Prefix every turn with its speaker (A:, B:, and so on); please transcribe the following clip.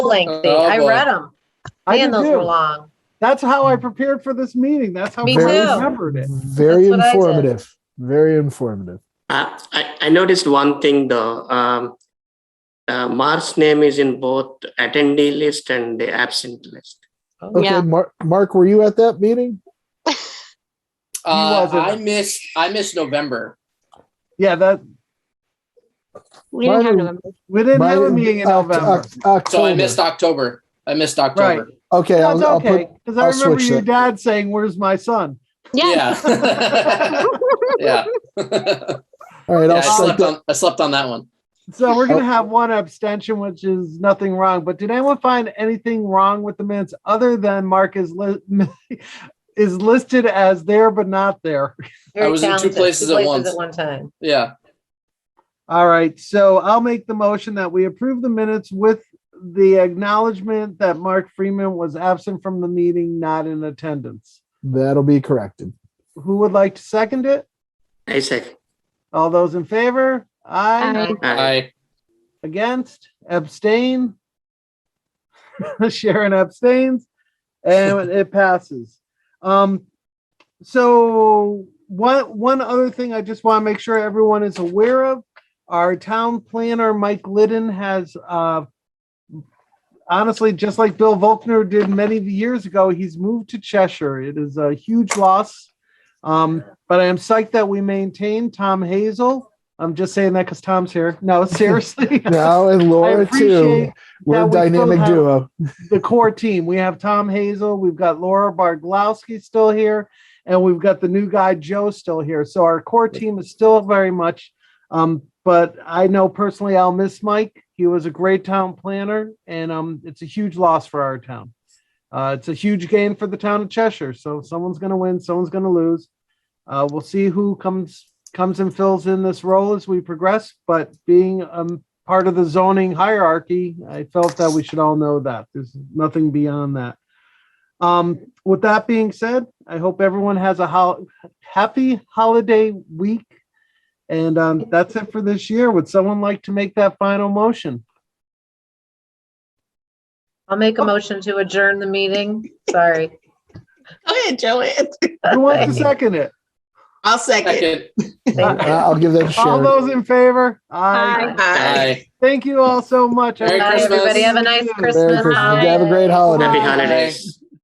A: lengthy.
B: Oh,
A: I
B: boy.
A: read them.
C: I
A: Man,
C: did
A: those were
C: too.
A: long.
C: That's how
D: Mm.
C: I prepared for this meeting. That's how I
A: Me
C: I
A: too.
C: remembered it.
A: That's
D: Very
A: what I did.
D: informative. Very informative.
E: Uh, I, I noticed one thing though, um, uh, Mark's name is in both attendee list and the absent list.
D: Okay,
F: Yeah.
D: Mark, Mark, were you at that meeting?
B: Uh,
C: wasn't.
B: I missed, I missed November.
C: Yeah, that
F: We didn't have
D: Mine-
F: November.
C: we didn't have a
D: Mine-
C: meeting in
D: Oct-
C: November.
D: Oct-
B: So I
D: October.
B: missed October. I missed
C: Right.
B: October.
D: Okay,
C: That's
D: I'll, I'll put,
C: okay. Because I
D: I'll
C: remember
D: switch
C: your
D: that.
C: dad saying, Where's my son?
F: Yeah.
B: Yeah. Yeah.
D: all right,
B: Yeah,
D: I'll
B: I
D: strike
B: slept
D: that.
B: on, I slept on that one.
C: So we're gonna
D: Oh.
C: have one abstention, which is nothing wrong. But did anyone find anything wrong with the minutes other than Mark is li- is listed as there but not there?
A: Very
B: was in two
A: talented.
B: places at once.
A: At one time.
B: Yeah.
C: All right, so I'll make the motion that we approve the minutes with the acknowledgement that Mark Freeman was absent from the meeting, not in attendance.
D: That'll be corrected.
C: Who would like to second it?
E: I second.
C: All those in favor? Aye.
F: I-
E: Aye.
B: I,
C: Against? Abstain? Sharon abstains and it passes. Um, so one, one other thing I just want to make sure everyone is aware of, our town planner, Mike Liddon has, uh, honestly, just like Bill Volkner did many years ago, he's moved to Cheshire. It is a huge loss. Um, but I am psyched that we maintain Tom Hazel. I'm just saying that because Tom's here. No, seriously.
D: Now and
C: I
D: Laura
C: appreciate
D: too. We're a
C: that we still
D: dynamic
C: have-
D: duo.
C: the core team. We have Tom Hazel, we've got Laura Barglowski still here, and we've got the new guy Joe still here. So our core team is still very much. Um, but I know personally I'll miss Mike. He was a great town planner, and um, it's a huge loss for our town. Uh, it's a huge gain for the town of Cheshire. So someone's going to win, someone's going to lose. Uh, we'll see who comes comes and fills in this role as we progress. But being um, part of the zoning hierarchy, I felt that we should all know that. There's nothing beyond that. Um, with that being said, I hope everyone has a hol- happy holiday week. And um, that's it for this year. Would someone like to make that final motion?
A: I'll make a motion to adjourn the meeting. Sorry.
G: Go ahead, Joanne.
C: Who wants to second it?
G: I'll second.
B: second.
A: Thank you.
D: I'll give that to
C: All
D: Sharon.
C: those in favor? Aye.
F: Aye.
G: Hi.
B: I,
C: Thank you all so much.
B: Merry
A: Bye,
B: Christmas.
A: everybody. Have a nice
C: Merry
A: Christmas.
D: Merry Christmas. You Have a great
A: holiday.
D: holiday.
E: Happy holidays.